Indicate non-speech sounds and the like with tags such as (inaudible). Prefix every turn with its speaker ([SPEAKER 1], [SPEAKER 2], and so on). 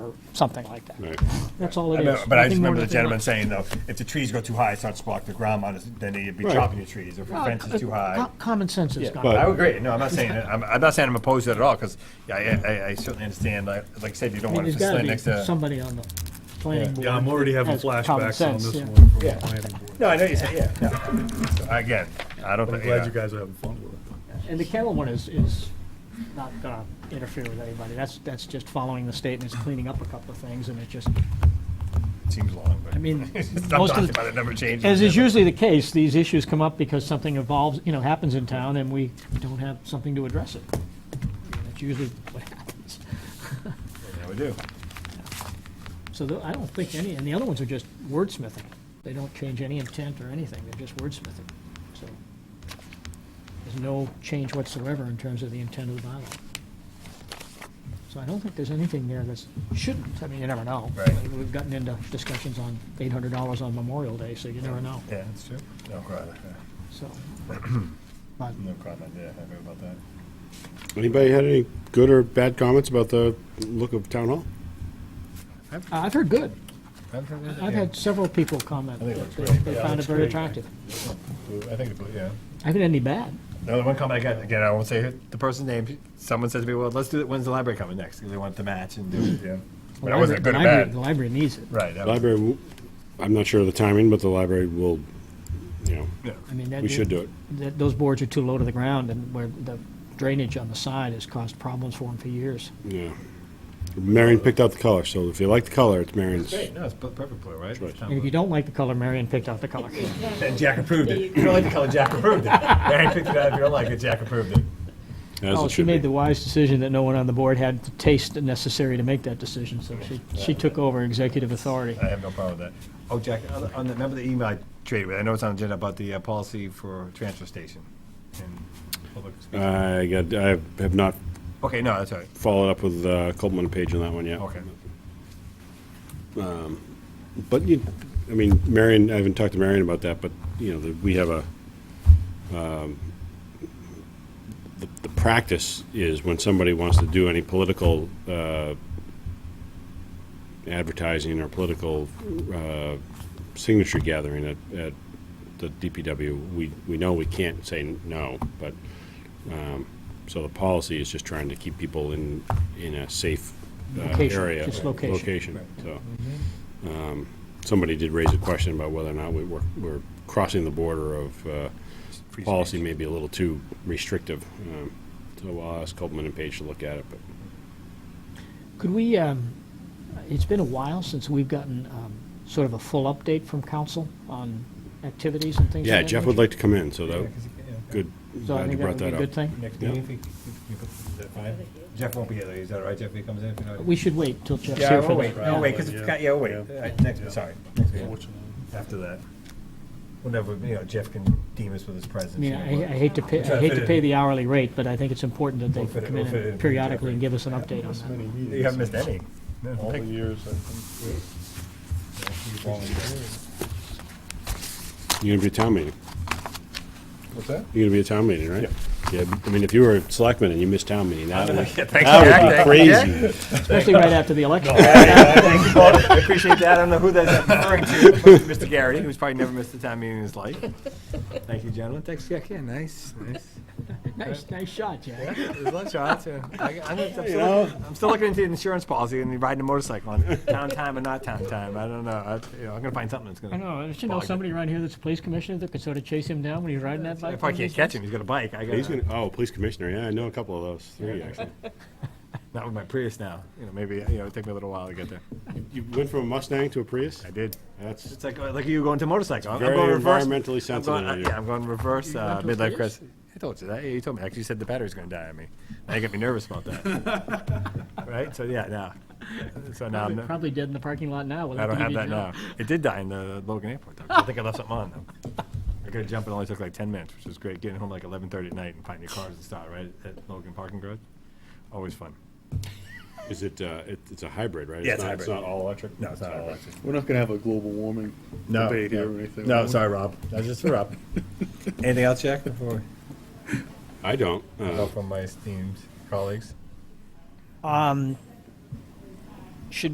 [SPEAKER 1] or something like that.
[SPEAKER 2] Right.
[SPEAKER 1] That's all
[SPEAKER 3] I
[SPEAKER 1] it is.
[SPEAKER 3] remember- But I
[SPEAKER 1] nothing
[SPEAKER 3] just
[SPEAKER 1] more,
[SPEAKER 3] remember the
[SPEAKER 1] nothing
[SPEAKER 3] gentleman
[SPEAKER 1] less.
[SPEAKER 3] saying, though, if the trees go too high, it starts to block the ground, on us, then they'd be
[SPEAKER 2] Right.
[SPEAKER 3] chopping the trees, or if the
[SPEAKER 1] Well,
[SPEAKER 3] fence is too high.
[SPEAKER 1] co- Common sense is gone.
[SPEAKER 2] but-
[SPEAKER 3] I would agree, no, I'm not saying, I'm, I'm not saying I'm opposed to it at all, because I, I I certainly understand, like like I said, you don't
[SPEAKER 1] I mean,
[SPEAKER 3] want it
[SPEAKER 1] there's
[SPEAKER 3] to
[SPEAKER 1] got
[SPEAKER 3] slide
[SPEAKER 1] to be
[SPEAKER 3] next to.
[SPEAKER 1] somebody on the planning board.
[SPEAKER 4] Yeah, I'm already having
[SPEAKER 1] has common
[SPEAKER 4] flashbacks on
[SPEAKER 1] sense,
[SPEAKER 4] this
[SPEAKER 1] yeah.
[SPEAKER 4] one from the
[SPEAKER 3] Yeah.
[SPEAKER 4] planning board.
[SPEAKER 3] No, I know you said, yeah, yeah. So Again, I don't,
[SPEAKER 4] But I'm
[SPEAKER 3] think-
[SPEAKER 4] glad you
[SPEAKER 3] yeah.
[SPEAKER 4] guys are having fun with it.
[SPEAKER 1] And the kennel one is, is not gonna interfere with anybody. That's, that's just following the state and it's cleaning up a couple of things and it just,
[SPEAKER 3] it seems long, but.
[SPEAKER 1] I mean,
[SPEAKER 3] (laughs) I'm
[SPEAKER 1] most of
[SPEAKER 3] talking
[SPEAKER 1] the-
[SPEAKER 3] about it never changes.
[SPEAKER 1] as is
[SPEAKER 3] never-
[SPEAKER 1] usually the case, these issues come up because something evolves, you know, happens in town and we don't have something to address it. And That's usually what happens.
[SPEAKER 3] Yeah, we do.
[SPEAKER 1] So tho- I don't think any, and the other ones are just wordsmithing. They don't change any intent or anything, they're just wordsmithing. So there's no change whatsoever in terms of the intent of the bylaw. So I don't think there's anything there that's, shouldn't, I mean, you never know.
[SPEAKER 3] Right.
[SPEAKER 1] We've gotten into discussions on eight hundred dollars on Memorial Day, so you never know,
[SPEAKER 3] Yeah, that's true. No comment, yeah. (clears throat)
[SPEAKER 1] so. But
[SPEAKER 3] no comment, yeah, I agree about that.
[SPEAKER 2] Anybody had any good or bad comments about the look of town hall?
[SPEAKER 1] I've heard good. I've
[SPEAKER 3] Yeah.
[SPEAKER 1] had several people comment.
[SPEAKER 3] I think it looks
[SPEAKER 1] that
[SPEAKER 3] great.
[SPEAKER 1] They
[SPEAKER 3] Yeah, it
[SPEAKER 1] found it
[SPEAKER 3] looks
[SPEAKER 1] very
[SPEAKER 3] great.
[SPEAKER 1] attractive.
[SPEAKER 3] I think, the blue- yeah.
[SPEAKER 1] I haven't had any bad.
[SPEAKER 3] The only one comment I got, again, I won't say who- the person's name, someone says to me, well, let's do it, when's the library coming next? Because they want the match and do it, yeah. But I wasn't good or
[SPEAKER 1] Library-
[SPEAKER 3] bad.
[SPEAKER 1] The library needs it.
[SPEAKER 3] Right. that was-
[SPEAKER 2] Library, w- I'm not sure of the timing, but the library will, you know,
[SPEAKER 3] yeah.
[SPEAKER 1] I mean, that.
[SPEAKER 2] we should do it.
[SPEAKER 1] that those boards are too low to the ground, and where the drainage on the side has caused problems for them for years.
[SPEAKER 2] Yeah. Marion picked out the color, so if you like the color, it's Marion's.
[SPEAKER 3] Great, no, it's per- perfect blue, right?
[SPEAKER 2] Choice.
[SPEAKER 1] And if (laughs) you don't like the color, Marion picked out the color.
[SPEAKER 3] And Jack approved it. If you don't like the color, Jack approved it. Barry picked it out, if you don't like it, Jack approved it.
[SPEAKER 2] As
[SPEAKER 1] Oh,
[SPEAKER 2] it
[SPEAKER 1] she
[SPEAKER 2] should
[SPEAKER 1] made the
[SPEAKER 2] be.
[SPEAKER 1] wise decision that no one on the board had the taste necessary to make that decision, so she, she took over executive authority.
[SPEAKER 3] I have no problem with that. Oh, Jack, on the- on the, remember the email I traded with, I know it's on the agenda about the uh, policy for transfer station and public speaking.
[SPEAKER 2] I got, I have not
[SPEAKER 3] Okay, no, that's all right.
[SPEAKER 2] followed up with uh, Coleman and Page on that one yet.
[SPEAKER 3] Okay.
[SPEAKER 2] But you, I mean, Marion, I haven't talked to Marion about that, but, you know, the- we have a, um, the, the practice is when somebody wants to do any political, uh, advertising or political, uh, signature gathering at, at the DPW, we, we know we can't say no, but, um, so the policy is just trying to keep people in, in a safe, uh,
[SPEAKER 1] Location,
[SPEAKER 2] area.
[SPEAKER 1] just location. Mm-hmm.
[SPEAKER 2] Location, so um, somebody did raise a question about whether or not we were, we're crossing the border of, uh,
[SPEAKER 3] Free
[SPEAKER 2] policy
[SPEAKER 3] speech.
[SPEAKER 2] may be a little too restrictive. Um, So I'll ask Copman and Page to look at it, but
[SPEAKER 1] Could we, um, it's been a while since we've gotten um, sort of a full update from council on activities and things like
[SPEAKER 2] yeah,
[SPEAKER 1] that.
[SPEAKER 2] Jeff would like to come in, so
[SPEAKER 3] Yeah,
[SPEAKER 2] that,
[SPEAKER 3] 'cause he- yeah.
[SPEAKER 2] good,
[SPEAKER 1] So I
[SPEAKER 2] glad you
[SPEAKER 1] think
[SPEAKER 2] brought
[SPEAKER 1] that would be
[SPEAKER 2] that
[SPEAKER 1] a
[SPEAKER 2] up.
[SPEAKER 1] good thing.
[SPEAKER 3] Next meeting, if he, if he comes- is that fine? Jeff won't be here, though. is that all right, Jeff, if he comes in? if you know-
[SPEAKER 1] We should wait till Jeff's
[SPEAKER 3] Yeah,
[SPEAKER 1] here for
[SPEAKER 3] we'll
[SPEAKER 1] that.
[SPEAKER 3] wait,
[SPEAKER 4] Yeah.
[SPEAKER 3] we'll wait, because, yeah, we'll wait, Uh, next, sorry, next meeting,
[SPEAKER 4] Unfortunately.
[SPEAKER 3] after that. Whenever, you know, Jeff can deem us with his presence.
[SPEAKER 1] I mean,
[SPEAKER 3] you know,
[SPEAKER 1] I
[SPEAKER 3] we'll-
[SPEAKER 1] I hate to pay,
[SPEAKER 3] We'll try
[SPEAKER 1] I
[SPEAKER 3] to
[SPEAKER 1] hate
[SPEAKER 3] fit
[SPEAKER 1] to
[SPEAKER 3] it
[SPEAKER 1] pay
[SPEAKER 3] in.
[SPEAKER 1] the hourly rate, but I think it's important that
[SPEAKER 3] We'll fit
[SPEAKER 1] they
[SPEAKER 3] it-
[SPEAKER 1] come
[SPEAKER 3] we'll fit it in
[SPEAKER 1] in
[SPEAKER 3] for
[SPEAKER 1] periodically and
[SPEAKER 3] Jeffrey.
[SPEAKER 1] give us an update on that.
[SPEAKER 3] You haven't missed any.
[SPEAKER 4] All the
[SPEAKER 3] Big-
[SPEAKER 4] years, I think.
[SPEAKER 2] You're gonna be at town meeting.
[SPEAKER 3] What's that?
[SPEAKER 2] You're gonna be at town meeting, right? Yeah, I mean, if you were a selectman and you missed town meeting,
[SPEAKER 1] (laughs)
[SPEAKER 2] that would,
[SPEAKER 3] Thanks,
[SPEAKER 2] that would be crazy.
[SPEAKER 1] Especially right after the
[SPEAKER 3] (laughs)
[SPEAKER 1] election.
[SPEAKER 3] I appreciate that. I don't know who that's referring to. but Mr. Garrity, who's probably never missed a time meeting in his life. Thank you, gentlemen. Thanks, Jack. Yeah, nice, nice.
[SPEAKER 1] Nice, nice shot, Jack.
[SPEAKER 3] There's lots of odds, yeah. I- I'm I'm still looking- I'm still looking into the insurance policy and riding a motorcycle on town time and not town time. I don't know. I, you know, I'm gonna find something that's gonna.
[SPEAKER 1] I know, I should know
[SPEAKER 3] bog it.
[SPEAKER 1] somebody around here that's a police commissioner that could sort of chase him down when he's riding that bike.
[SPEAKER 3] If I can't catch him, he's got a bike. I
[SPEAKER 2] He's gonna,
[SPEAKER 3] got,
[SPEAKER 2] oh, police commissioner, yeah, I know a couple of those, three actually.
[SPEAKER 3] not with my Prius now. You know, maybe, you know, it'd take me a little while to get there.
[SPEAKER 2] You went from a Mustang to a Prius?
[SPEAKER 3] I did.
[SPEAKER 2] That's,
[SPEAKER 3] It's like, like you going to motorcycle.
[SPEAKER 2] very
[SPEAKER 3] I'm going reverse.
[SPEAKER 2] environmentally sensitive
[SPEAKER 3] I'm
[SPEAKER 2] of
[SPEAKER 3] going,
[SPEAKER 2] you.
[SPEAKER 3] yeah, I'm going reverse uh,
[SPEAKER 1] going to a
[SPEAKER 3] midlife
[SPEAKER 1] place?
[SPEAKER 3] crisis. I told you that. Yeah, you told me. Actually, you said the battery's going to die on me. Now you got me nervous about that.
[SPEAKER 1] (laughs)
[SPEAKER 3] right? So yeah, now. So now I'm,
[SPEAKER 1] Probably-
[SPEAKER 3] not-
[SPEAKER 1] Probably dead in the parking lot now.
[SPEAKER 3] I
[SPEAKER 1] without
[SPEAKER 3] don't
[SPEAKER 1] the
[SPEAKER 3] have
[SPEAKER 1] EV
[SPEAKER 3] that now.
[SPEAKER 1] job.
[SPEAKER 3] It did die in the Logan Airport. Though, 'cause I think I left something on though. I got to jump. It only took like 10 minutes, which was great. Getting home like 11:30 at night and finding your cars and stuff right at Logan Parking Garage. Always fun.
[SPEAKER 2] is it, uh, it- it's a hybrid, right?
[SPEAKER 3] Yeah, it's
[SPEAKER 2] not-
[SPEAKER 3] hybrid.
[SPEAKER 2] It's not all electric?
[SPEAKER 3] No, it's not all electric.
[SPEAKER 4] We're not gonna have a global warming
[SPEAKER 3] No,
[SPEAKER 4] debate here
[SPEAKER 3] no.
[SPEAKER 4] or anything.
[SPEAKER 3] No,
[SPEAKER 4] are we?
[SPEAKER 3] sorry, Rob. That's just for
[SPEAKER 4] (laughs)
[SPEAKER 3] Rob. Anything else, Jack? Before.
[SPEAKER 2] I don't. uh,
[SPEAKER 3] Help from my esteemed colleagues.
[SPEAKER 1] Um,